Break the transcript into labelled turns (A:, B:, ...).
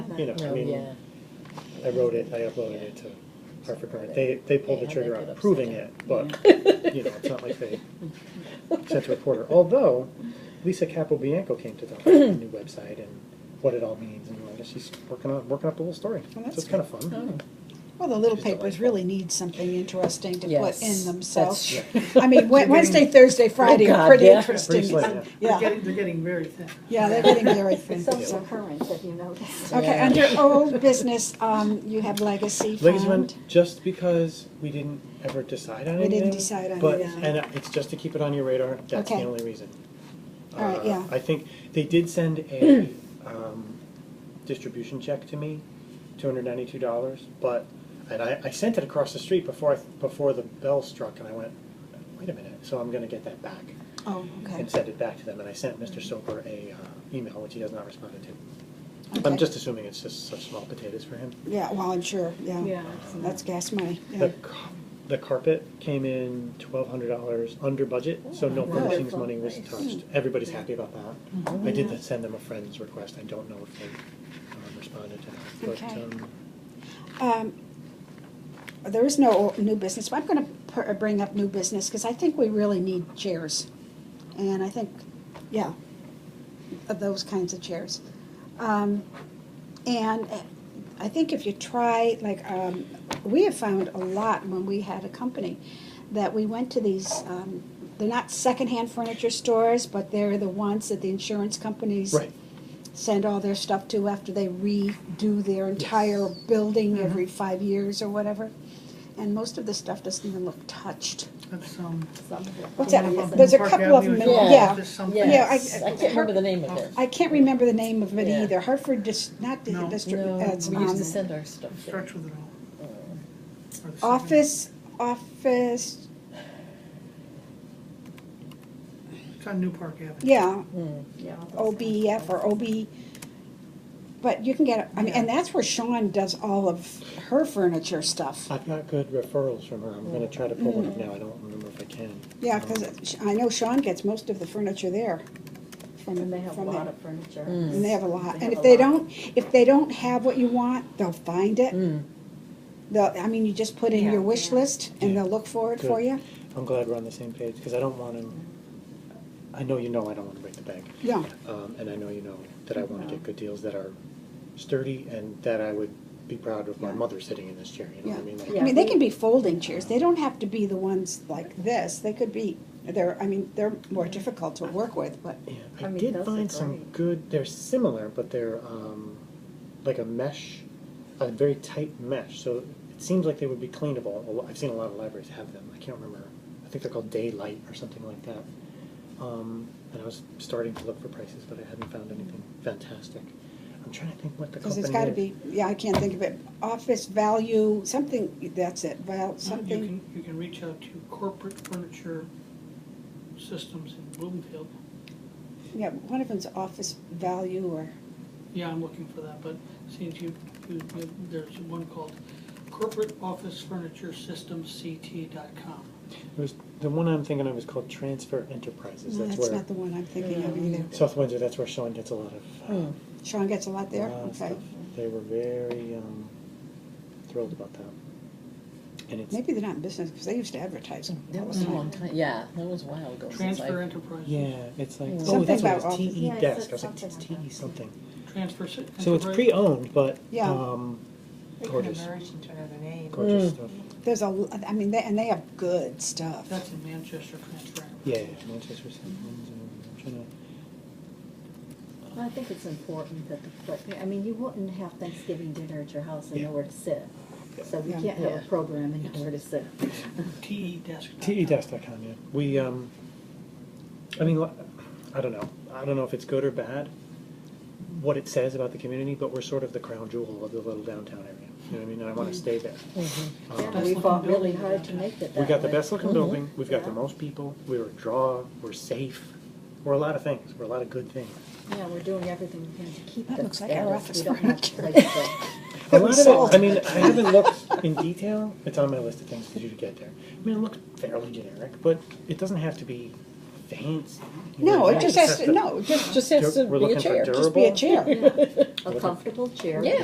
A: you know, I
B: No,
A: mean,
B: Oh, yeah.
A: I wrote it, I uploaded it to Hartford Current. They, they pulled the
B: Yeah,
A: trigger
B: they
A: on
B: did
A: approving
B: upset
A: it, but, you know, it's not like they sent a reporter. Although Lisa Capobianco came to talk about the new website and what it all means and all this. She's working on, working up the whole story. So
C: Well,
A: it's
C: that's
A: kind of fun.
B: Oh,
C: Well, the little
A: Just
C: papers
A: delightful.
C: really need something interesting to put in
B: Yes,
C: themselves.
B: that's
C: I mean, Wed- Wednesday, Thursday, Friday
B: God,
C: are pretty
B: yeah.
C: interesting.
A: Pretty slim,
D: They're
C: Yeah,
D: getting, they're getting very thin.
C: yeah, they're getting very
E: It's
C: thin.
E: also current, have you noticed?
C: Okay,
B: Yeah.
C: under old business, um, you have legacy
A: Ladies and
C: fund.
A: gentlemen, just because we didn't ever decide on
C: We
A: anything.
C: didn't decide on
A: But,
C: anything.
A: and it's just to keep it on your radar, that's the
C: Okay.
A: only reason.
C: All right,
A: Uh,
C: yeah.
A: I think they did send a, um, distribution check to me, two hundred ninety-two dollars, but, and I, I sent it across the street before I, before the bell struck, and I went, wait a minute, so I'm gonna get that back,
C: Oh, okay. Mm-hmm.
A: and send it back to them, and I sent Mr. Soper a, uh, email, which he has not responded to. I'm
C: Okay.
A: just assuming it's just such small potatoes for him.
C: Yeah, well, I'm sure, yeah. That's gas money, yeah.
A: The, ca- the carpet came in twelve hundred dollars under budget, so no
C: wow.
A: furnishings
E: Wonderful.
A: money was
E: Nice.
A: touched. Everybody's happy about that. I
C: Mm-hmm.
A: did send them a friend's request. I don't know if they um, responded to that,
C: Okay.
A: but, um,
C: Um, There is no o- new business, but I'm gonna per- bring up new business, because I think we really need chairs. And I think, yeah, of those kinds of chairs. Um, And eh, I think if you try, like, um, we have found a lot when we had a company, that we went to these, um, they're not secondhand furniture stores, but they're the ones that the insurance companies
A: right,
C: send all their stuff to after they redo their entire building every five years or whatever. And most of the stuff doesn't even look touched.
D: That's, um,
C: What's that?
D: up in
C: There's a
D: Park
C: couple of
D: Avenue,
C: them,
D: Georgia,
C: yeah.
D: there's something.
B: Yes,
C: Yeah, I-
B: I can't remember the name of it.
C: I can't remember the name of it
B: Yeah.
C: either. Hartford dis, not the
D: No.
C: district,
B: No,
C: it's,
B: we used to
C: um,
B: send our stuff
D: It
B: there.
D: Starts with an
B: Uh,
D: O. Or the
C: office, office,
D: second- It's on New Park Avenue.
C: yeah,
B: hmm.
C: Oh, OBF or OB. But you can get, I mean, and that's where Sean does all of her furniture stuff.
A: I've got good referrals from her. I'm gonna try to pull one up now. I don't remember if I can.
C: Mm-hmm. Yeah,
A: Um,
C: because I know Sean gets most of the furniture there. from-
E: And they have a
C: from
E: lot
C: there.
E: of furniture.
C: And they have a lot,
E: They
C: and
E: have
C: if
E: a lot.
C: they don't, if they don't have what you want, they'll find it.
B: Mm.
C: They'll, I mean, you just put in
E: Yeah,
C: your wish
E: yeah.
C: list and
A: Yeah.
C: they'll look for it for
A: Good.
C: you.
A: I'm glad we're on the same page, because I don't wanna, I know you know I don't wanna break the bank.
C: Yeah,
A: Um, and I know you know that I wanna get good deals that are sturdy and that I would be proud of my mother sitting in this chair, you know what I mean? Like,
C: I mean, they can be folding chairs, they don't have to be the ones like this, they could be, they're, I mean, they're more difficult to work with, but,
A: Yeah,
E: I
A: I
E: mean,
A: did
E: those are
A: find some
E: great.
A: good, they're similar, but they're, um, like a mesh, a very tight mesh, so it seems like they would be cleanable. A lo- I've seen a lot of libraries have them, I can't remember, I think they're called Daylight or something like that. Um, and I was starting to look for prices, but I hadn't found anything fantastic. I'm trying to think what the
C: because
A: company is.
C: it's gotta be, yeah, I can't think of it. Office value, something, that's it,
E: Oh,
C: val,
D: You
C: something,
D: can, you can reach out to Corporate Furniture Systems in Bloomfield.
C: yeah, one of them's office value or,
D: Yeah, I'm looking for that, but since you, you, you- there's one called Corporate Office Furniture Systems CT dot com.
A: It was, the one I'm thinking of is called Transfer Enterprises,
C: no,
A: that's
C: that's
A: where,
C: not the one Hmm. I'm thinking of either.
A: South Windsor, that's where Sean gets a lot of, uh,
B: Mm.
C: Sean gets a lot there,
A: Wow,
C: okay.
A: stuff. They were very um, thrilled about that. And it's,
C: Maybe they're not in business, because they used to advertise them all
B: That
C: the
B: was a
C: time.
B: long time, yeah, that was a while ago. since
D: Transfer
B: I-
D: Enterprises.
A: yeah, it's like, oh,
C: Something
A: that's what it
C: about
A: was, TE
E: office-
A: desk. I
E: Yeah, it said
A: was like, it's
E: something about
A: TE something.
D: Transfer. Sy-
A: So it's
D: Enterprise-
A: pre-owned, but
C: Yeah.
A: um,
F: They could
A: gorgeous,
F: emerge into another name.
A: gorgeous
B: Mm.
A: stuff.
C: There's a, l- I mean, they, and they have good stuff.
D: That's in Manchester Transfer. Enterprise.
A: Yeah, Manchester City. I'm trying to-
E: Well, I think it's important that the, court- I mean, you wouldn't have Thanksgiving dinner at your house and
A: Yeah.
E: nowhere to sit. So we
C: Yeah.
E: can't have
B: Yeah.
E: a program and nowhere to sit.
D: TE desk.
A: E TEDesk.com, yeah. We, um, I mean, li- I don't know. I don't know if it's good or bad, what it says about the community, but we're sort of the crown jewel of the little downtown area. You know what I mean? And I want to stay there.
B: Mm-hmm.
A: Um,
E: And we fought really hard to make it that
A: We
E: way.
A: got the best looking building, we've got the
E: Yeah.
A: most people, we were draw, we're safe, we're a lot of things, we're a lot of good things.
E: Yeah, we're doing everything we can to keep
C: That
E: the
C: looks like our
E: status.
C: office
E: We don't have
C: furniture.
E: a place to-
A: A lot of
C: Sold.
A: it, I mean, I haven't looked in detail, it's on my list of things to do to get there. I mean, it looks fairly generic, but it doesn't have to be fancy. you know,
C: No, it
A: it's
C: just has to,
A: the-
C: no, just,
B: Just has to
A: We're
B: be a
A: looking for
B: chair.
A: durable.
C: just be a chair.
E: A comfortable chair.
B: Yeah.